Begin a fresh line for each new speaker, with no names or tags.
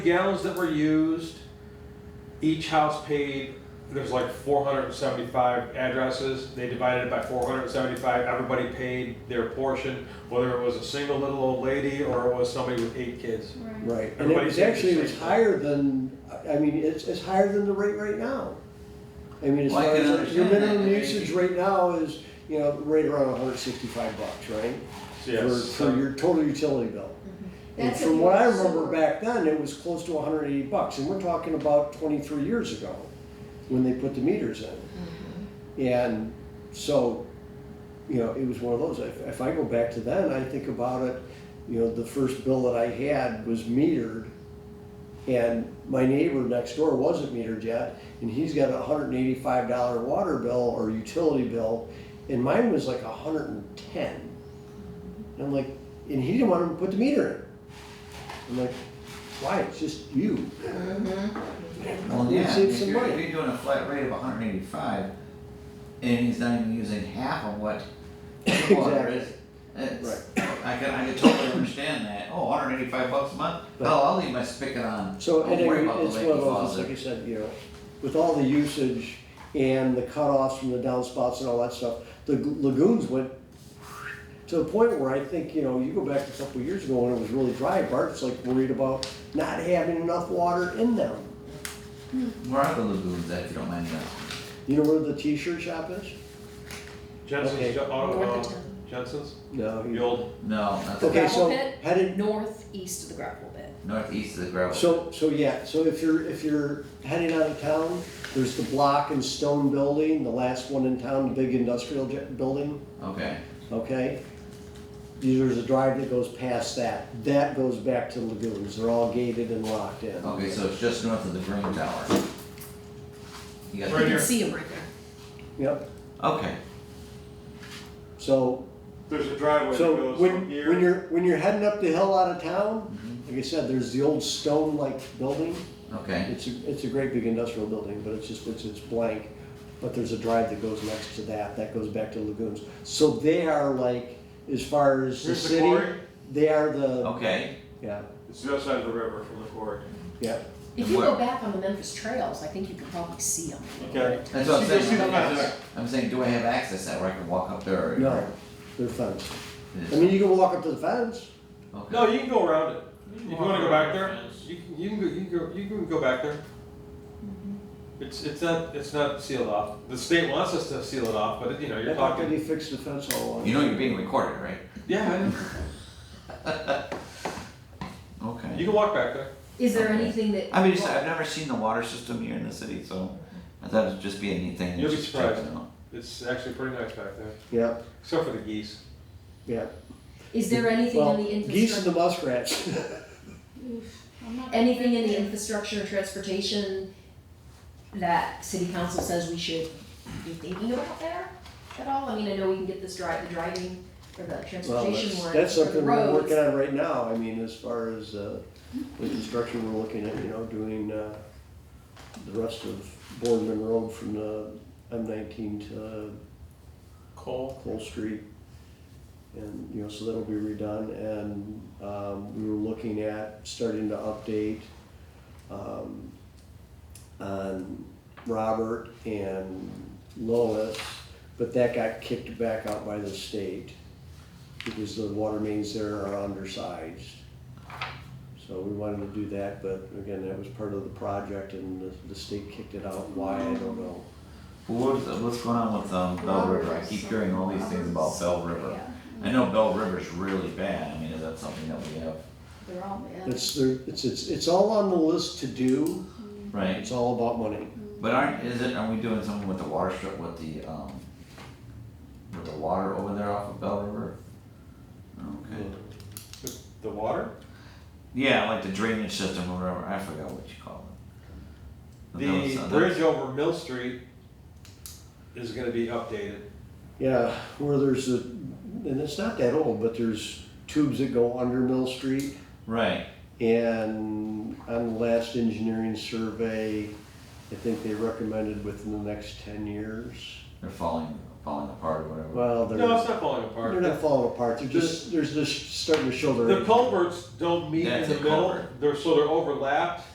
gallons that were used, each house paid, there's like four hundred and seventy-five addresses, they divided it by four hundred and seventy-five, everybody paid their portion, whether it was a single little old lady or it was somebody with eight kids.
Right.
Right, and it
Everybody's
was
saying
actually,
the
it was
same thing.
higher than, I I mean, it's, it's higher than the rate right now. I mean, as
Well, I
far
can
as, your
understand that, I
minimum
mean-
usage right now is, you know, right around hundred sixty-five bucks, right?
So,
For,
yes,
for your total utility bill. And
That's
from
if
what I
you-
remember back then, it was close to hundred eighty bucks, and we're talking about twenty-three years ago, when they put the meters in.
Mm-hmm.
And so, you know, it was one of those, if, if I go back to then, I think about it, you know, the first bill that I had was metered. And my neighbor next door wasn't metered yet, and he's got a hundred and eighty-five dollar water bill or utility bill, and mine was like a hundred and ten.
Mm-hmm.
And I'm like, and he didn't want to put the meter in. I'm like, why, it's just you.
Well,
You
yeah,
save
if
some
you're,
money.
if you're doing a flat rate of hundred and eighty-five, and he's not even using half of what the water
Exactly.
is, it's, I can, I can totally understand that, oh, hundred and eighty-five bucks a month,
But-
hell, I'll leave my spigot on,
So
don't worry
anyway,
about the
it's
lake
one
that
of those, it's
falls
like I
there.
said, you know, with all the usage and the cutoffs from the downspouts and all that stuff, the g- lagoons went to the point where I think, you know, you go back a couple of years ago when it was really dry, Bart's like worried about not having enough water in them.
Where are the lagoons at, if you don't mind me asking?
You know where the t-shirt shop is?
Jensen's,
Okay.
Jo-
Mm-hmm.
uh, uh,
Northerton.
Jensen's,
No.
the
he-
old,
No, that's
Okay,
Gravel
so
pit?
headed,
northeast of the gravel pit.
northeast of the gravel.
So, so yeah, so if you're, if you're heading out of town, there's the block and stone building, the last one in town, the big industrial j- building,
Okay,
okay? There's a drive that goes past that, that goes back to lagoons, they're all gated and locked in.
okay, so it's just north of the green tower. You got
Right
You
here.
can see them right there.
Yep,
Okay,
so,
there's a driveway that
so
goes
when,
from
when
here.
you're, when you're heading up the hill out of town, like I said, there's the old stone-like building.
okay,
It's a, it's a great big industrial building, but it's just, it's, it's blank, but there's a drive that goes next to that, that goes back to lagoons. So they are like, as far as the
Here's the
city,
quarry.
they are the,
okay,
yeah,
It's the other side of the river from the quarry.
yeah.
If you go back on the Memphis trails, I think you can probably see them.
Okay.
that's what I'm
See- see
saying,
the
I'm
fence?
just- I'm saying, do I have access that where I can walk up there? or-
No, they're fenced.
Yes.
I mean, you can walk up to the fence,
Okay.
No, you can go around it, if you
walk
wanna go
around
back
the
there,
fence.
you can, you can go, you can go, you can go back there. It's, it's not, it's not sealed off, the state wants us to seal it off, but you know,
I
you're
thought
talking.
that he fixed the fence all along.
You know you're being recorded, right?
Yeah, I know. You
Okay.
can walk back there.
Is there
Okay.
anything that?
I mean, just, I've never seen the water system here in the city, so I thought it'd just be a neat thing. to
You'll be
just check
surprised.
it out.
It's actually pretty nice back there,
Yeah,
except for the geese.
yeah.
Is there anything
Well,
in the
geese and the
infrastructure,
muskrats.
I'm not-
anything in the infrastructure and transportation that city council says we should be thinking about there at all? I mean, I know we can get this drive, the driving or the
Well,
transportation
that's,
one,
that's
or the
something we're
roads.
working on right now, I mean, as far as, uh, the construction we're looking at, you know, doing, uh, the rest of Boardman Road from the M nineteen to
Coal.
Cole Street. And, you know, so that'll be redone, and, um, we were looking at starting to update, um, on Robert and Lois, but that got kicked back out by the state because the water mains there are undersized. So we wanted to do that, but again, that was part of the project and the, the state kicked it out, why, I don't know.
Well, what's, what's going on with um, Bell River? I keep hearing all these things about Bell River.
Yeah,
I know Bell River's really bad. I mean, is that something that we have?
they're all, yeah.
It's, there- it's, it's, it's all on the list to do,
Right.
it's all about money.
But aren't is it? Are we doing something with the water strip with the um with the water over there off of Bell River? Okay.
The, the water?
Yeah, like the drainage system or whatever. I forgot what you call it. Oh, That was- uh,
The
that was-
bridge over Mill Street is gonna be updated.
Yeah, where there's a, and it's not that old, but there's tubes that go under Mill Street.
Right.
And on the last engineering survey, I think they recommended within the next ten years.
They're falling falling apart or whatever.
Well, they're,
No, it's not falling
they're
apart.
not falling apart, they're just, they're just starting to show their.
The culverts don't meet in
That's
the
a
middle,
culvert.
they're, so they're overlapped,